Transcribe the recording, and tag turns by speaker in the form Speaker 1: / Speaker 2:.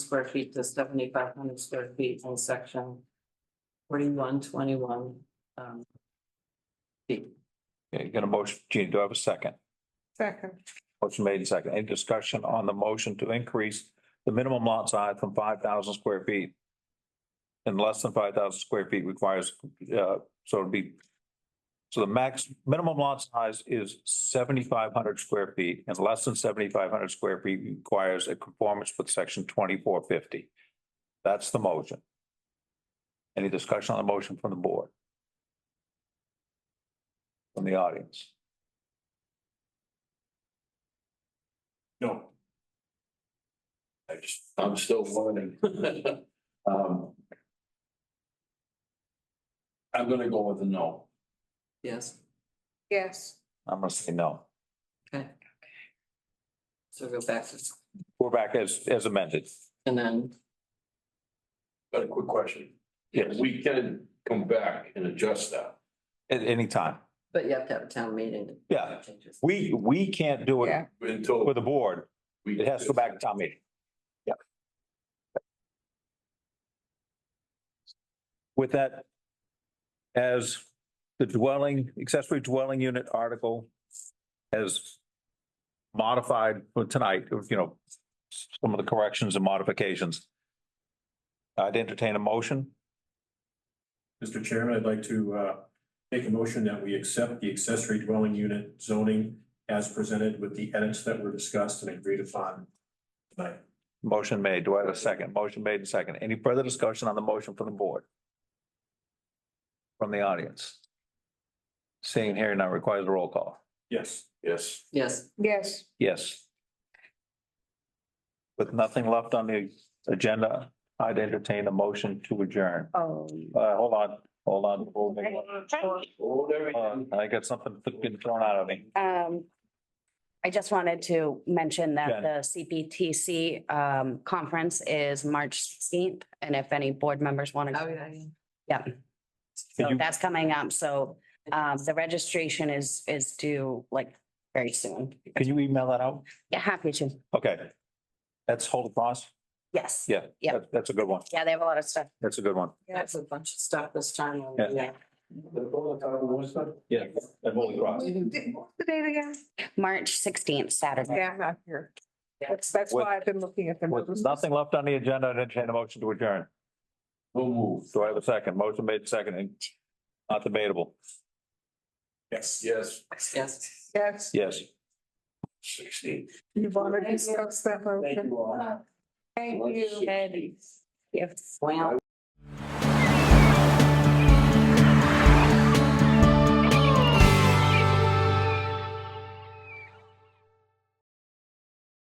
Speaker 1: square feet to seventy-five hundred square feet in section forty-one twenty-one. um, B.
Speaker 2: Okay, you got a motion, Gina, do I have a second?
Speaker 3: Second.
Speaker 2: Motion made and second. Any discussion on the motion to increase the minimum lot size from five thousand square feet? And less than five thousand square feet requires, uh, so it'd be. So the max, minimum lot size is seventy-five hundred square feet and less than seventy-five hundred square feet requires a conformance with section twenty-four fifty. That's the motion. Any discussion on the motion from the board? From the audience?
Speaker 4: No. I just, I'm still learning. Um. I'm gonna go with a no.
Speaker 1: Yes,
Speaker 3: Yes.
Speaker 2: I'm gonna say no.
Speaker 1: okay. So go back to,
Speaker 2: We're back as, as amended.
Speaker 1: and then,
Speaker 4: Got a quick question. Yeah, we can come back and adjust that.
Speaker 2: At any time.
Speaker 1: but you have to have a town meeting. to
Speaker 2: Yeah.
Speaker 1: Changes.
Speaker 2: We, we can't do
Speaker 3: Yeah.
Speaker 2: it
Speaker 4: Until.
Speaker 2: with the board.
Speaker 4: we-
Speaker 2: It has to go back to town meeting. Yep. With that, as the dwelling, accessory dwelling unit article as modified for tonight, you know, some of the corrections and modifications. I'd entertain a motion.
Speaker 5: Mr. Chairman, I'd like to uh, make a motion that we accept the accessory dwelling unit zoning as presented with the edits that were discussed and agreed upon tonight.
Speaker 2: Motion made. Do I have a second? Motion made and second. Any further discussion on the motion from the board? From the audience? Seeing here now requires a roll call.
Speaker 5: Yes.
Speaker 4: Yes,
Speaker 1: Yes,
Speaker 3: Yes.
Speaker 2: Yes. With nothing left on the agenda, I'd entertain a motion to adjourn.
Speaker 3: Oh.
Speaker 6: Um,
Speaker 2: Uh, hold on, hold on. hold on.
Speaker 4: hold everything.
Speaker 2: Hold on. I got something being thrown out of me.
Speaker 6: Um, I just wanted to mention
Speaker 2: Jen.
Speaker 6: that the CPTC um conference is March sixteenth, and if any board members want
Speaker 1: oh,
Speaker 6: to,
Speaker 1: yeah, yeah.
Speaker 6: yeah.
Speaker 2: Can
Speaker 6: So
Speaker 2: you-
Speaker 6: that's coming up, so um the registration is is due like very soon.
Speaker 2: Can you email that out?
Speaker 6: Yeah, happy to,
Speaker 2: Okay. That's hold across.
Speaker 6: yes.
Speaker 2: Yeah.
Speaker 6: Yeah.
Speaker 2: that- That's a good one.
Speaker 6: Yeah, they have a lot of stuff.
Speaker 2: That's a good one.
Speaker 1: That's a bunch of stuff this time. on
Speaker 2: Yeah.
Speaker 1: the, uh,
Speaker 2: Yeah. And hold across.
Speaker 3: What's the date again?
Speaker 6: March sixteenth, Saturday.
Speaker 3: Yeah, not here.
Speaker 1: Yeah.
Speaker 3: That's, that's why I've been looking at the.
Speaker 2: With
Speaker 3: notice.
Speaker 2: nothing left on the agenda, I'd entertain a motion to adjourn.
Speaker 4: We'll move.
Speaker 2: Do I have a second? Motion made second and not debatable.
Speaker 5: Yes.
Speaker 4: Yes,
Speaker 1: Yes.
Speaker 3: Yes.
Speaker 2: Yes.
Speaker 4: sixteen.
Speaker 3: You want to discuss that motion?
Speaker 4: all.
Speaker 3: Thank you.
Speaker 1: Well.